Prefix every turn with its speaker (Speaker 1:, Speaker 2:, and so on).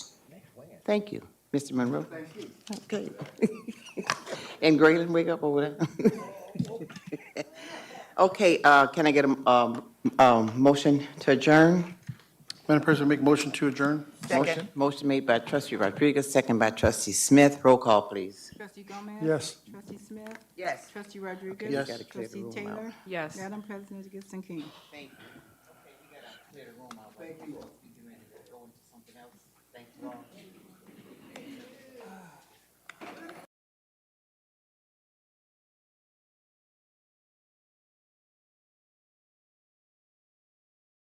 Speaker 1: Thank you, Mr. Monroe. Thank you. Okay. And Grayling, wake up over there. Okay, uh, can I get a, um, um, motion to adjourn?
Speaker 2: Madam President, make motion to adjourn?
Speaker 1: Motion. Motion made by trustee Rodriguez, second by trustee Smith. Roll call, please.
Speaker 3: Trustee Gomez?
Speaker 2: Yes.
Speaker 3: Trustee Smith?
Speaker 1: Yes.
Speaker 3: Trustee Rodriguez?
Speaker 1: we
Speaker 2: Yes.
Speaker 1: gotta clear the
Speaker 3: Trustee
Speaker 1: room out.
Speaker 3: Taylor?
Speaker 4: Yes.
Speaker 3: Madam President Gibson King?
Speaker 1: Thank you. Okay, we gotta clear the room out. Thank you. Go into something else. Thank you all.